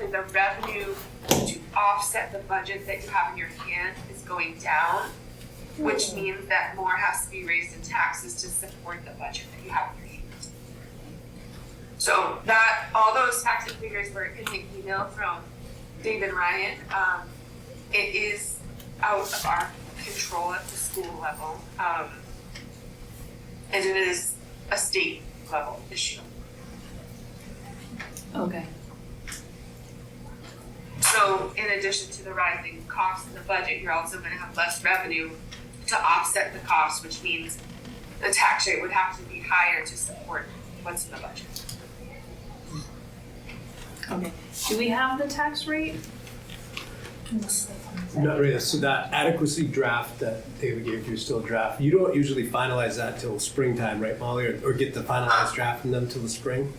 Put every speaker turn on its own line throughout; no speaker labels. and the revenue to offset the budget that you have in your hand is going down, which means that more has to be raised in taxes to support the budget that you have in your hand. So that, all those tax and figures were in the email from David Ryan. Um, it is out of our control at the school level. Um, and it is a state level issue.
Okay.
So in addition to the rising costs in the budget, you're also gonna have less revenue to offset the costs, which means the tax rate would have to be higher to support what's in the budget.
Okay. Do we have the tax rate?
Not really, so that adequacy draft that David gave you is still a draft. You don't usually finalize that till springtime, right, Molly? Or, or get the finalized draft from them till the spring?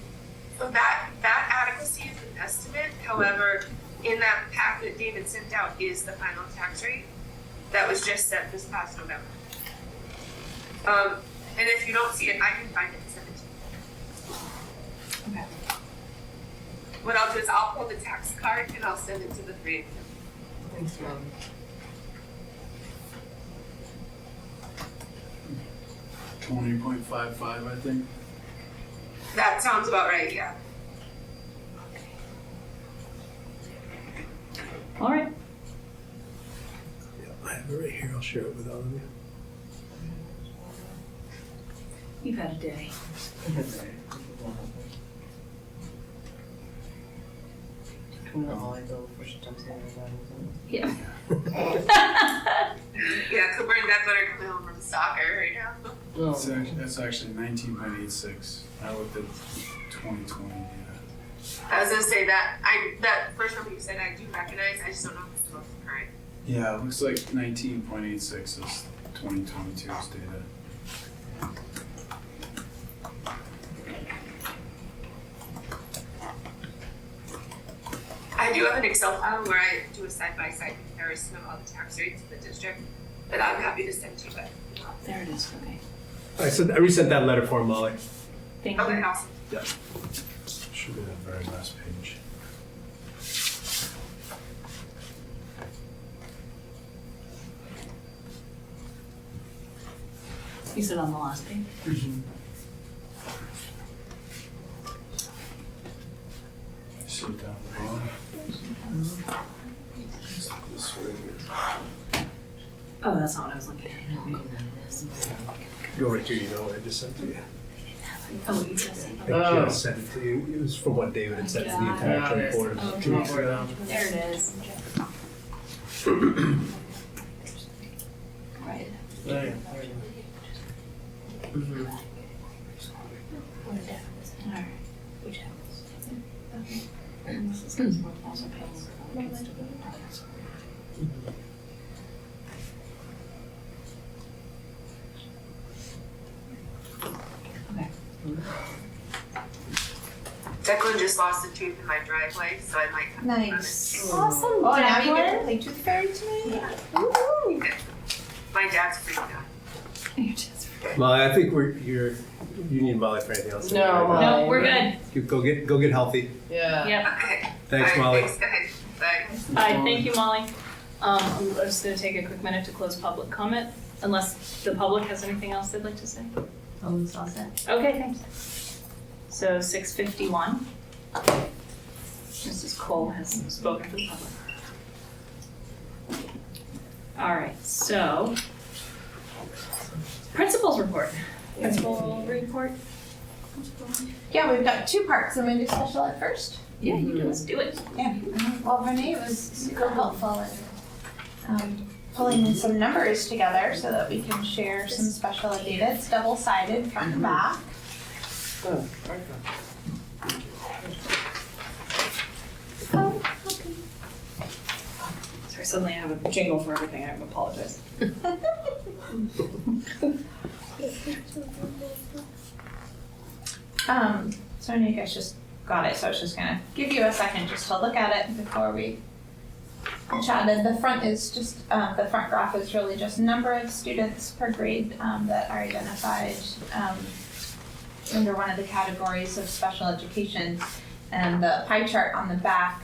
So that, that adequacy is an estimate, however, in that pack that David sent out is the final tax rate that was just set this past November. Um, and if you don't see it, I can find it and send it to you.
Okay.
What I'll do is I'll pull the tax card and I'll send it to the three of you.
Thanks, Mom.
twenty point five five, I think.
That sounds about right, yeah.
All right.
Yeah, I have it right here, I'll share it with all of you.
You've had a day.
Come on, all I go for she jumps in the bed.
Yeah.
Yeah, Cooper and Beth are coming home from soccer right now.
It's act- That's actually nineteen point eight six. I looked at twenty twenty data.
I was gonna say that I that first number you said I do recognize. I just don't know if it's the most current.
Yeah, it looks like nineteen point eight six is twenty twenty two's data.
I do have an Excel file where I do a side by side comparison of all the tax rates in the district that I'm happy to send to you. But
There it is. Okay.
I sent, I resent that letter for Molly.
Thank
okay,
you.
awesome.
Should be the very last page.
You said on the last page.
See it down the bottom. This way.
Oh, that's not what I was looking at.
Go right to you, you know what I just sent to you.
Oh, you just.
I think
Oh.
Jess sent it to you, it was from what David had sent to the
Yeah,
entire
there's-
board
oh,
two weeks ago.
There it is. Right.
Right.
All right. Hmm.
Declan just lost a tooth in my driveway, so I might have
Nice.
Awesome,
Oh, now you get
Declan.
to play Tooth Fairy tonight?
Woohoo.
my dad's freaking out.
You're just.
Molly, I think we're, you're, you need Molly for anything else.
No, Molly.
No, we're good.
You go get, go get healthy.
Yeah.
Yep.
Okay.
Thanks,
All right,
Molly.
Thanks, guys. Bye.
Hi, thank you, Molly. Um, I'm just gonna take a quick minute to close public comment, unless the public has anything else they'd like to say.
Oh, it's all set.
Okay, thanks. So six fifty-one. Mrs. Cole has spoken to the public. All right, so. Principals report. Principal report?
Yeah, we've got two parts. I'm gonna do special ed first.
Yeah, you do, let's do it.
Well, Renee was super helpful in um, pulling some numbers together so that we can share some special ed data. It's double sided, front and back.
Oh, okay.
Sorry, suddenly I have a jingle for everything, I apologize.
Um, so I know you guys just got it, so I was just gonna give you a second just to look at it before we chatted. The front is just, um, the front graph is really just number of students per grade, um, that are identified, um, under one of the categories of special education. And the pie chart on the back